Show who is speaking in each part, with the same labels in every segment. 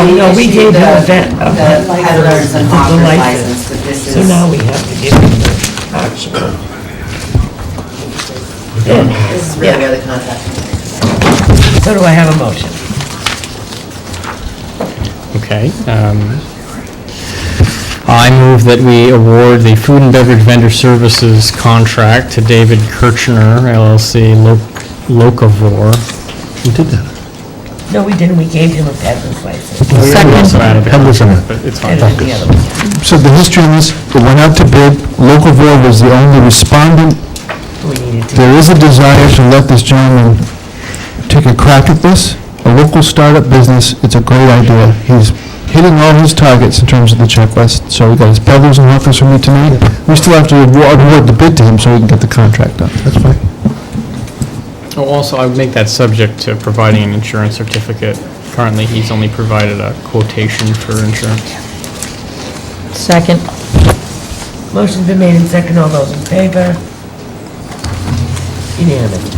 Speaker 1: Oh, no, we
Speaker 2: issued
Speaker 1: gave
Speaker 2: the-
Speaker 1: her that, uh,
Speaker 2: The peddlers and
Speaker 1: the
Speaker 2: hawkers license,
Speaker 1: license.
Speaker 2: but this is.
Speaker 1: So now we have to give him the auction. Yeah.
Speaker 2: This is really where the contract.
Speaker 1: So do I have a motion?
Speaker 3: Okay. um, I move that we award the food and beverage vendor services contract to David Kirchner LLC Lo- Locavore. Who did that?
Speaker 1: No, we didn't, we gave him a peddler's license.
Speaker 3: Second.
Speaker 4: Peddler's in it.
Speaker 3: It's fine.
Speaker 1: And then the other one.
Speaker 4: So the history on this, it went out to bid, local board was the only respondent.
Speaker 1: We needed to,
Speaker 4: There is a desire to let this gentleman take a crack at this, a local startup business, it's a great idea. He's hitting all his targets in terms of the checklist, so we got his peddlers and hawkers from you tonight. We still have to award award the bid to him so we can get the contract done. That's fine.
Speaker 3: Oh, Also, I would make that subject to providing an insurance certificate. Currently, he's only provided a quotation for insurance.
Speaker 5: Second.
Speaker 1: motion's been made and second, all those in favor? Unanimous.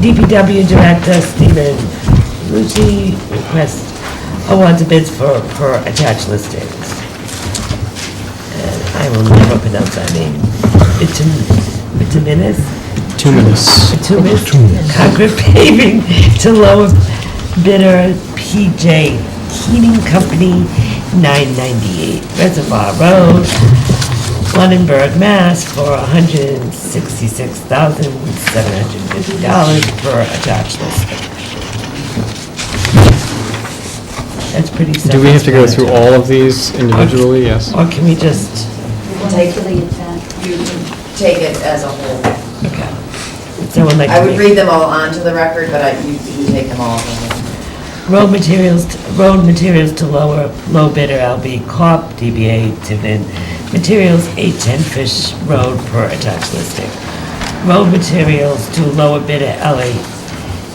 Speaker 1: DPW Director Stephen Lucci requests awards of bids for, for attached listings. And I will never pronounce that name. Bituminous?
Speaker 3: Two minutes.
Speaker 1: Bituminous? Concord paving to lower bidder PJ Heating Company, 998 Reservoir Road, Lunenburg, Mass. for $166,750 for attached listing. That's pretty
Speaker 3: Do we have to go through
Speaker 1: self-explanatory.
Speaker 3: all of these individually? Yes.
Speaker 1: Or can we just,
Speaker 2: Take You can take it as a whole.
Speaker 1: okay. Would Someone like to
Speaker 2: I would
Speaker 1: make-
Speaker 2: read them all onto the record, but I, you you take them all.
Speaker 1: Road materials, road materials to lower, low bidder LB Corp., DBA Tiverton Materials, 810 Fish Road per attached listing. Road materials to lower bidder LA,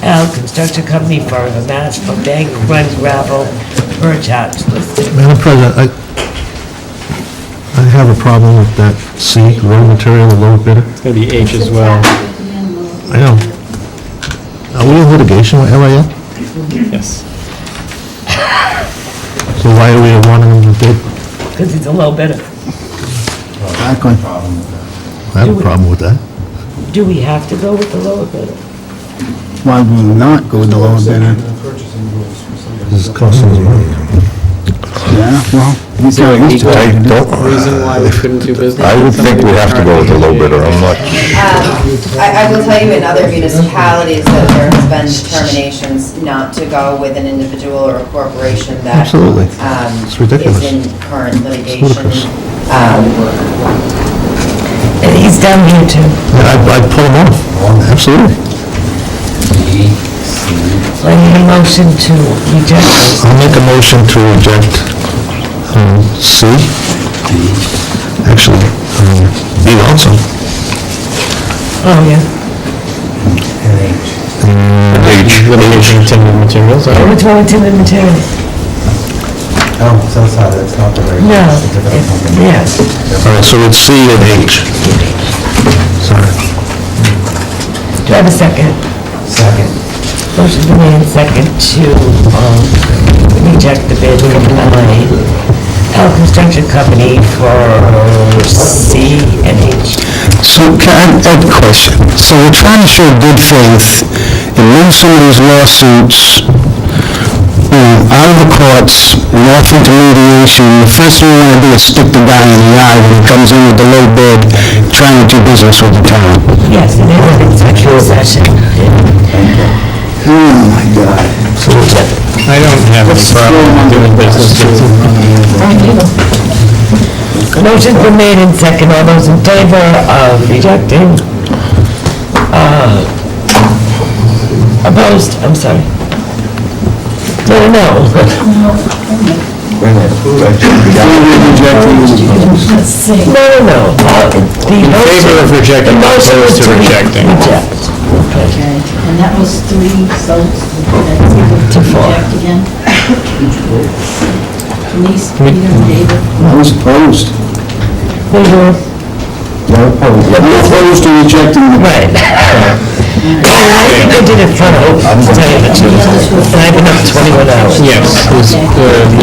Speaker 1: L Construction Company, Forever Mass, for bank run gravel per attached listing.
Speaker 4: Madam President, I, I have a problem with that C, raw material, low bidder.
Speaker 3: It's going to be H as well.
Speaker 4: I know. Are we in litigation with LAL?
Speaker 3: Yes.
Speaker 4: So why are we wanting them to bid?
Speaker 1: Because it's a low bidder.
Speaker 4: I have a problem with that.
Speaker 1: Do we have to go with the lower bidder?
Speaker 6: Why would we not go with the lower bidder?
Speaker 4: This is costing us money.
Speaker 6: Yeah, well, he's
Speaker 3: there
Speaker 6: not
Speaker 3: an
Speaker 6: used to
Speaker 3: equal-
Speaker 6: it.
Speaker 7: I don't,
Speaker 3: Reason why we couldn't do business?
Speaker 7: I would
Speaker 3: with
Speaker 7: think
Speaker 3: somebody
Speaker 7: we have to go with the low
Speaker 3: currently
Speaker 7: bidder, I'm not,
Speaker 2: Um, I, I will tell you in other municipalities that there has been determinations not to go with an individual or a corporation that.
Speaker 4: Absolutely.
Speaker 2: um,
Speaker 4: It's ridiculous.
Speaker 2: Is in current litigation.
Speaker 4: ludicrous.
Speaker 2: Um,
Speaker 1: And he's down here too.
Speaker 4: I'd, I'd pull them off, absolutely.
Speaker 1: So I need a motion to reject.
Speaker 4: I'll make a motion to reject um, C. Actually, um, B also.
Speaker 1: Oh, yeah.
Speaker 4: H.
Speaker 3: Litigation intended materials. I
Speaker 1: And
Speaker 3: would-
Speaker 1: What's wrong with timber materials?
Speaker 8: Oh, so sorry, that's not the right.
Speaker 1: No.
Speaker 8: it's a different
Speaker 1: It's-
Speaker 8: company.
Speaker 1: Yes.
Speaker 4: All right, so it's C and H. Sorry.
Speaker 1: Do I have a second?
Speaker 8: Second.
Speaker 1: Motion been made and second to um, reject the bid from Melanie, L Construction Company for C and H.
Speaker 4: So can I, I have a question. So we're trying to show good faith and move some of these lawsuits you know, out of the courts and off into mediation. The first thing we want to do is stick the guy in the eye when he comes in with the low bid, trying to do business with the town.
Speaker 1: Yes, it is an executive session.
Speaker 3: I don't have any problem doing business with
Speaker 1: Motion been made and second. All those in favor of rejecting? uh, Opposed? I'm sorry. No, no, no. No, no, no. Uh, the
Speaker 3: favor
Speaker 1: motion-
Speaker 3: of rejecting,
Speaker 1: the motion is
Speaker 3: opposed to rejecting.
Speaker 1: Reject.
Speaker 5: Okay, and that was three, so that's either to reject again. Denise, Peter, and David.
Speaker 6: I was opposed.
Speaker 1: They were-
Speaker 6: I'm opposed to rejecting the
Speaker 1: Right. I think I did it for hope, to tell you the truth. And I've been up 21 hours.
Speaker 3: Yes, it was, uh,